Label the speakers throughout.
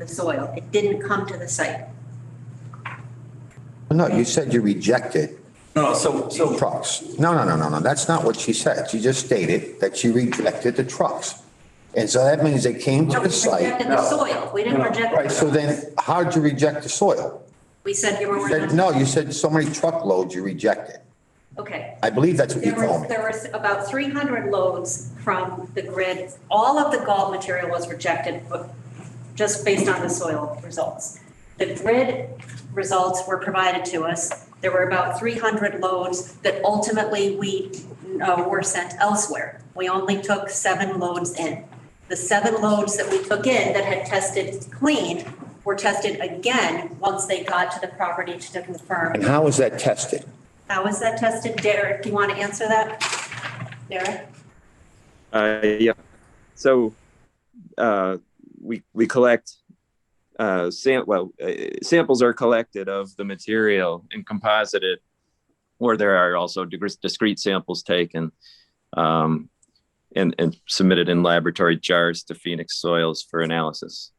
Speaker 1: the soil. It didn't come to the site.
Speaker 2: No, you said you rejected
Speaker 3: No, so, so
Speaker 2: trucks. No, no, no, no, no, that's not what she said. She just stated that she rejected the trucks. And so that means they came to
Speaker 1: No, We
Speaker 2: the site.
Speaker 1: rejected the soil. We didn't
Speaker 2: Right,
Speaker 1: reject,
Speaker 2: so then how'd you reject the soil?
Speaker 1: we said you
Speaker 2: You
Speaker 1: were.
Speaker 2: said- No, you said so many truckloads you rejected.
Speaker 1: Okay.
Speaker 2: I believe that's what you
Speaker 1: There
Speaker 2: told
Speaker 1: were,
Speaker 2: me.
Speaker 1: there was about 300 loads from the grid. All of the golf material was rejected, but just based on the soil results. The grid results were provided to us. There were about 300 loads that ultimately we uh, were sent elsewhere. We only took seven loads in. The seven loads that we took in that had tested clean were tested again once they got to the property to confirm.
Speaker 2: And how was that tested?
Speaker 1: How was that tested? Derek, do you want to answer that? Derek?
Speaker 4: Uh, yeah. So uh, we we collect uh, sam- well uh, samples are collected of the material and composited, or there are also digre- discrete samples taken um, and and submitted in laboratory jars to Phoenix Soils for analysis.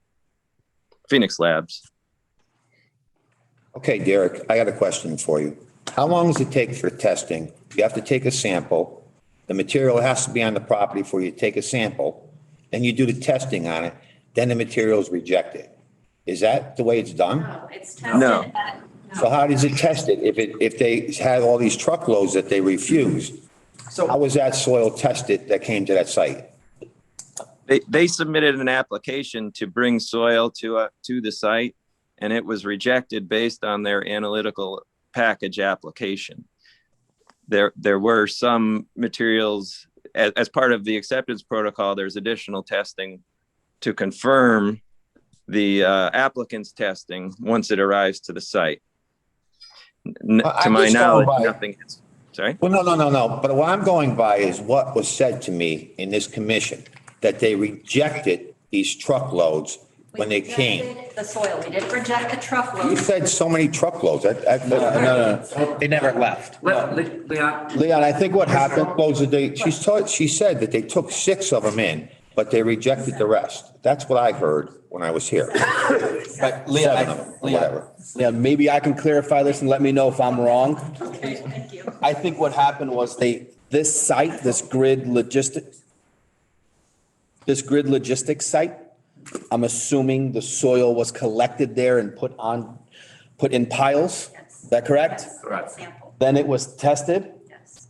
Speaker 4: Phoenix Labs.
Speaker 2: Okay, Derek, I got a question for you. How long does it take for testing? You have to take a sample. The material has to be on the property before you take a sample. Then you do the testing on it, then the material is rejected. Is that the way it's done?
Speaker 1: No, Oh, it's tested.
Speaker 4: No.
Speaker 1: at-
Speaker 2: So
Speaker 1: no.
Speaker 2: how does it test it? If it, if they had all these truckloads that they refused, how
Speaker 3: so
Speaker 2: was that soil tested that came to that site?
Speaker 4: They they submitted an application to bring soil to uh, to the site, and it was rejected based on their analytical package application. There there were some materials as, as part of the acceptance protocol. There's additional testing to confirm the uh, applicant's testing once it arrives to the site. N-
Speaker 2: I-
Speaker 4: to
Speaker 2: I'm
Speaker 4: my
Speaker 2: just going
Speaker 4: knowledge,
Speaker 2: by-
Speaker 4: nothing. has- Sorry.
Speaker 2: Well, no, no, no, no. But what I'm going by is what was said to me in this commission, that they rejected these truckloads when they
Speaker 1: We
Speaker 2: came.
Speaker 1: rejected The soil, we didn't reject the
Speaker 2: You
Speaker 1: truckload.
Speaker 2: said so many truckloads. I- I-
Speaker 5: No, no, no, they never left.
Speaker 3: Le- Le- Leon,
Speaker 2: Leon, I think what happened was that they, she's taught, she said that they took six of them in, but they rejected the rest. That's what I heard when I was here.
Speaker 5: But Leon,
Speaker 2: Seven of
Speaker 5: I-
Speaker 2: them, or
Speaker 5: Leon,
Speaker 2: whatever.
Speaker 5: Leon, maybe I can clarify this and let me know if I'm wrong.
Speaker 1: Okay, thank you.
Speaker 5: I think what happened was they, this site, this grid logistic, this grid logistics site, I'm assuming the soil was collected there and put on, put in piles. Is that correct?
Speaker 1: Yes,
Speaker 3: Correct.
Speaker 1: Sample,
Speaker 5: Then it was tested.
Speaker 1: yes.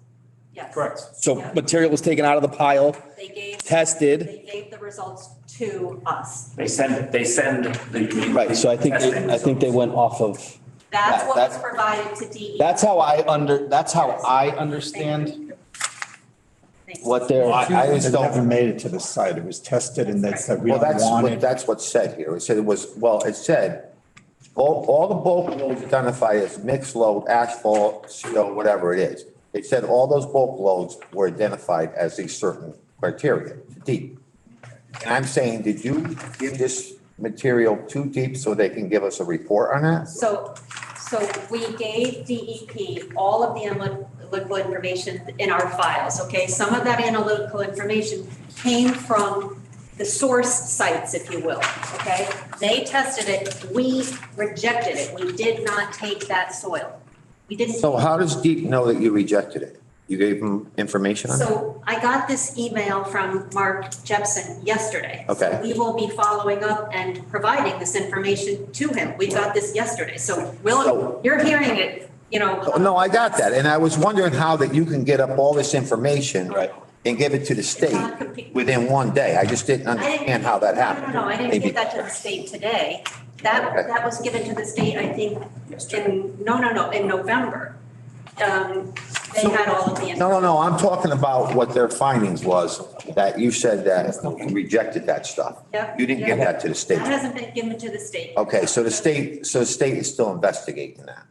Speaker 1: Yes.
Speaker 3: correct.
Speaker 5: So material was taken out of the pile,
Speaker 1: They gave.
Speaker 5: tested.
Speaker 1: They gave the results to us.
Speaker 3: They send, they send the.
Speaker 5: Right, so I think,
Speaker 3: testing
Speaker 5: they- I think they
Speaker 3: results.
Speaker 5: went off of,
Speaker 1: That's
Speaker 5: That-
Speaker 1: what was
Speaker 5: that-
Speaker 1: provided to E. DEP.
Speaker 5: that's how I under, that's how I understand
Speaker 1: Thank you.
Speaker 5: what they're.
Speaker 2: I just
Speaker 6: It
Speaker 2: don't-
Speaker 6: never made it to the site. It was tested and they said, we
Speaker 2: Well,
Speaker 6: don't
Speaker 2: that's
Speaker 6: want
Speaker 2: what,
Speaker 6: it.
Speaker 2: that's what's said here. It said it was, well, it said, all, all the bulk loads identified as mixed load, asphalt, CO, whatever it is. It said all those bulk loads were identified as these certain criteria, deep. And I'm saying, did you give this material too deep so they can give us a report on that?
Speaker 1: So, so we gave DEP all of the analytical information in our files, okay? Some of that analytical information came from the source sites, if you will, okay? They tested it, we rejected it, we did not take that soil. We didn't.
Speaker 2: So how does deep know that you rejected it? You gave them information on that?
Speaker 1: So I got this email from Mark Jepson yesterday.
Speaker 2: Okay.
Speaker 1: So We will be following up and providing this information to him. We got this yesterday, so
Speaker 2: So-
Speaker 1: Will, you're hearing it, you know.
Speaker 2: Oh, No, I got that, and I was wondering how that you can get up all this information.
Speaker 5: Right.
Speaker 2: And give it to the state within one day. I just didn't
Speaker 1: I didn't-
Speaker 2: understand how that happened.
Speaker 1: No, no, no, I didn't
Speaker 2: Maybe-
Speaker 1: give that to the state today. That,
Speaker 2: Okay.
Speaker 1: that was given to the state, I think, in, no, no, no, in November. Um, They had all of the.
Speaker 2: No, no, no, I'm talking about what their findings was, that you said that you rejected that stuff.
Speaker 1: Yep.
Speaker 2: You didn't give
Speaker 1: Yep.
Speaker 2: that to the state.
Speaker 1: That hasn't been given to the state.
Speaker 2: Okay, so the state, so the state is still investigating that.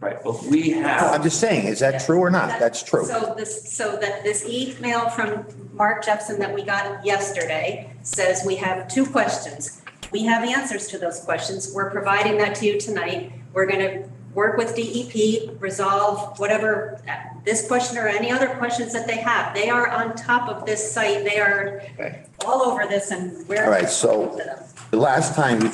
Speaker 3: Right, but we
Speaker 2: I'm
Speaker 3: have,
Speaker 2: just saying, is that true or not? That's true.
Speaker 1: So this, so that this email from Mark Jepson that we got yesterday says we have two questions. We have answers to those questions. We're providing that to you tonight. We're going to work with DEP, resolve whatever, uh, this question or any other questions that they have. They are on top of this site. They are
Speaker 2: Okay.
Speaker 1: all over this and we're.
Speaker 2: All right, so- The last time you